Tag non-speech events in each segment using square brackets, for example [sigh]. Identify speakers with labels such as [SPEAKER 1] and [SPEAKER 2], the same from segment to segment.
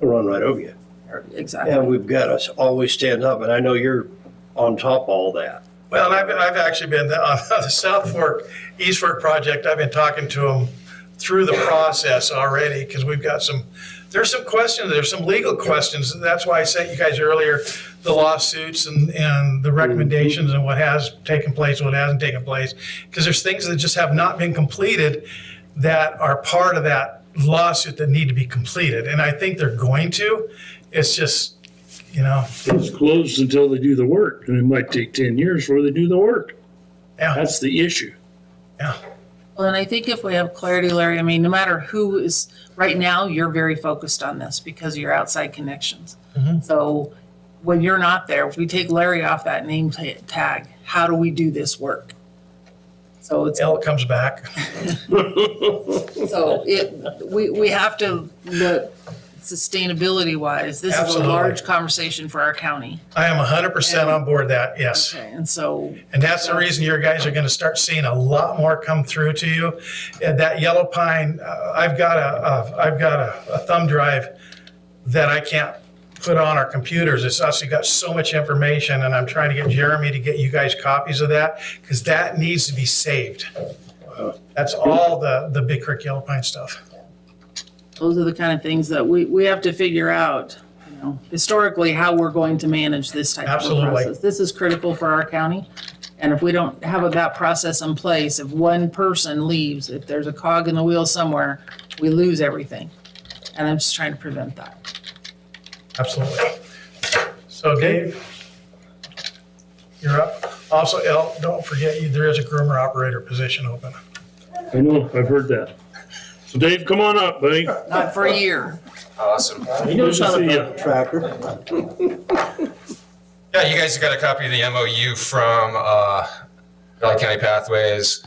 [SPEAKER 1] they'll run right over you. And
[SPEAKER 2] Exactly.
[SPEAKER 1] we've got to always stand up, and I know you're on top of all that.
[SPEAKER 3] Well, and I've, been- I've actually been on [laughs] the South Fork, East Fork project, I've been talking to them through the process already, because we've got some, there's some questions, there's some legal questions, and that's why I sent you guys earlier the lawsuits and, and the recommendations and what has taken place, what hasn't taken place, because there's things that just have not been completed that are part of that lawsuit that need to be completed, and I think they're going to, it's just, you know,
[SPEAKER 4] It's closed until they do the work, and it might take ten years before they do the work.
[SPEAKER 3] yeah,
[SPEAKER 4] That's the issue.
[SPEAKER 3] yeah.
[SPEAKER 2] Well, and I think if we have clarity, Larry, I mean, no matter who is, right now, you're very focused on this because of your outside connections. So when you're not there, if we take Larry off that name ta- tag, how do we do this work? So it's,
[SPEAKER 3] L comes back.
[SPEAKER 2] so it, we, we have to look sustainability wise. This is a
[SPEAKER 3] Absolutely.
[SPEAKER 2] large conversation for our county.
[SPEAKER 3] I am 100% on board that, yes.
[SPEAKER 2] Okay, And so
[SPEAKER 3] And that's the reason your guys are going to start seeing a lot more come through to you. And that yellow pine, uh, I've got a, a I've got a, a thumb drive that I can't put on our computers. It's actually got so much information and I'm trying to get Jeremy to get you guys copies of that because that needs to be saved. That's all the, the Big Creek Yellow Pine stuff.
[SPEAKER 2] those are the kind of things that we, we have to figure out, you know, historically, how we're going to manage this type of
[SPEAKER 3] Absolutely.
[SPEAKER 2] process. This is critical for our county. And if we don't have that process in place, if one person leaves, if there's a cog in the wheel somewhere, we lose everything. And I'm just trying to prevent that.
[SPEAKER 3] Absolutely. So Dave, you're up. Also, L, don't forget, you- there is a groomer operator position open.
[SPEAKER 4] I know, I've heard that. So Dave, come on up, buddy.
[SPEAKER 2] Not for a year.
[SPEAKER 5] Awesome.
[SPEAKER 4] Good to see you.
[SPEAKER 1] Tractor.
[SPEAKER 5] Yeah, you guys got a copy of the MOU from uh, Valley County Pathways.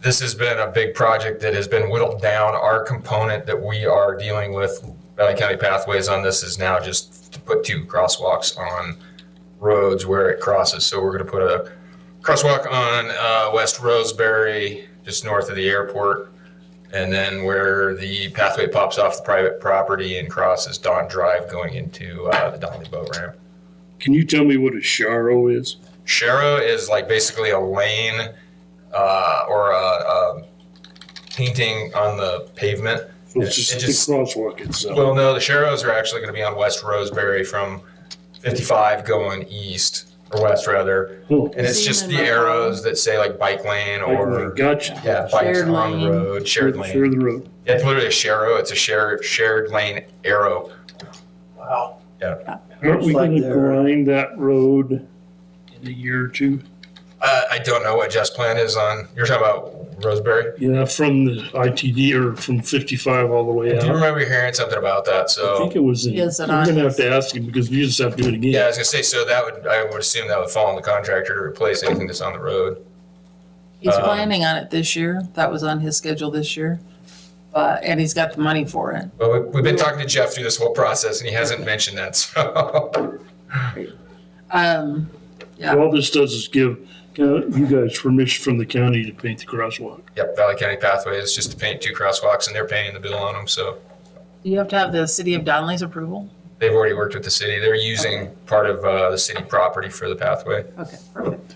[SPEAKER 5] This has been a big project that has been whittled down. Our component that we are dealing with, Valley County Pathways on this is now just to put two crosswalks on roads where it crosses. So we're going to put a crosswalk on uh, West Roseberry, just north of the airport. And then where the pathway pops off the private property and crosses Don Drive going into uh, the Donnelly Boat Ramp.
[SPEAKER 4] Can you tell me what a sharo is?
[SPEAKER 5] Shara is like basically a lane uh, or a, a painting on the pavement.
[SPEAKER 4] So
[SPEAKER 5] It
[SPEAKER 4] It's just
[SPEAKER 5] just-
[SPEAKER 4] the crosswalk itself.
[SPEAKER 5] Well, no, the Sharos are actually going to be on West Roseberry from 55 going east or west rather,
[SPEAKER 4] Oh,
[SPEAKER 5] and it's just the
[SPEAKER 2] um,
[SPEAKER 5] arrows that say like bike lane
[SPEAKER 4] I
[SPEAKER 5] or
[SPEAKER 4] Gotcha.
[SPEAKER 5] yeah, bikes
[SPEAKER 2] Shared
[SPEAKER 5] on
[SPEAKER 2] lane.
[SPEAKER 5] road, shared
[SPEAKER 4] Share the
[SPEAKER 5] lane.
[SPEAKER 4] road.
[SPEAKER 5] Yeah, it's literally a Sharo. It's a shared shared lane arrow.
[SPEAKER 3] Wow.
[SPEAKER 4] Aren't we
[SPEAKER 1] Looks like
[SPEAKER 4] gonna
[SPEAKER 1] they're-
[SPEAKER 4] grind that road in a year or two?
[SPEAKER 5] Uh, I don't know what Jeff's plan is on. You're talking about Roseberry.
[SPEAKER 4] Yeah, from the ITD or from fifty-five all the way
[SPEAKER 5] I do
[SPEAKER 4] out.
[SPEAKER 5] remember hearing something about that. So
[SPEAKER 4] I think it was, in-
[SPEAKER 2] Yes,
[SPEAKER 4] I'm
[SPEAKER 2] and
[SPEAKER 4] gonna
[SPEAKER 2] I-
[SPEAKER 4] have to ask him because you just have to do it again.
[SPEAKER 5] Yeah, I was gonna say, so that would, I would assume that would fall on the contractor to replace anything that's on the road.
[SPEAKER 2] He's
[SPEAKER 5] Um,
[SPEAKER 2] planning on it this year. That was on his schedule this year. But, and he's got the money for it.
[SPEAKER 5] But we- we've been talking to Jeff through this whole process and he hasn't mentioned that, [laughs] so.
[SPEAKER 2] Um, yeah.
[SPEAKER 4] All this does is give uh, you guys permission from the county to paint the crosswalk.
[SPEAKER 5] Yep, Valley County Pathways, just to paint two crosswalks and they're paying the bill on them, so.
[SPEAKER 2] Do you have to have the city of Donley's approval?
[SPEAKER 5] They've already worked with the city. They're using part of, uh, the city property for the pathway.
[SPEAKER 2] Okay, perfect.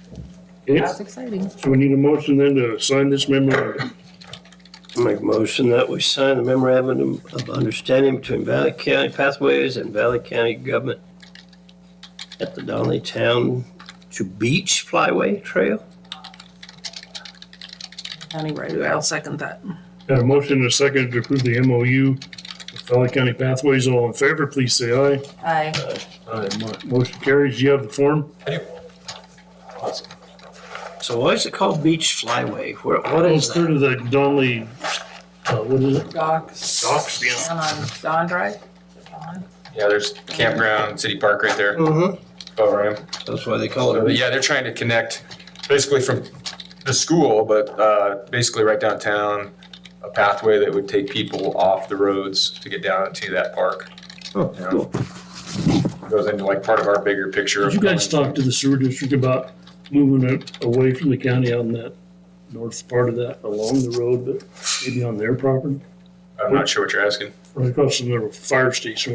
[SPEAKER 4] Okay,
[SPEAKER 2] That's exciting.
[SPEAKER 4] so we need a motion then to sign this memorandum.
[SPEAKER 1] Make a motion that we sign the memorandum of understanding between Valley County Pathways and Valley County Government at the Donley Town to Beach Flyway Trail.
[SPEAKER 2] County right away. I'll second that.
[SPEAKER 4] Got a motion and a second to approve the MOU with Valley County Pathways. All in favor, please say aye.
[SPEAKER 2] Aye.
[SPEAKER 4] Aye. mo- Motion carries. You have the form?
[SPEAKER 1] So why is it called Beach Flyway? Where, what
[SPEAKER 4] It's
[SPEAKER 1] is
[SPEAKER 4] through
[SPEAKER 1] that?
[SPEAKER 4] to the Donley, uh, what is it?
[SPEAKER 2] Docs.
[SPEAKER 4] Docks, yeah.
[SPEAKER 2] Down on Don Drive.
[SPEAKER 5] Yeah, there's campground, city park right there.
[SPEAKER 1] Mm-hmm.
[SPEAKER 5] Oh, right.
[SPEAKER 1] That's why they call
[SPEAKER 5] But
[SPEAKER 1] it.
[SPEAKER 5] yeah, they're trying to connect basically from the school, but uh, basically right downtown, a pathway that would take people off the roads to get down to that park.
[SPEAKER 1] Oh,
[SPEAKER 5] You know?
[SPEAKER 1] cool.
[SPEAKER 5] Goes into like part of our bigger picture.
[SPEAKER 4] Did
[SPEAKER 5] of
[SPEAKER 4] you guys
[SPEAKER 5] going-
[SPEAKER 4] talk to the sewer district about moving it away from the county on that north part of that along the road, but maybe on their property?
[SPEAKER 5] I'm not sure what you're asking.
[SPEAKER 4] Right across from the fire station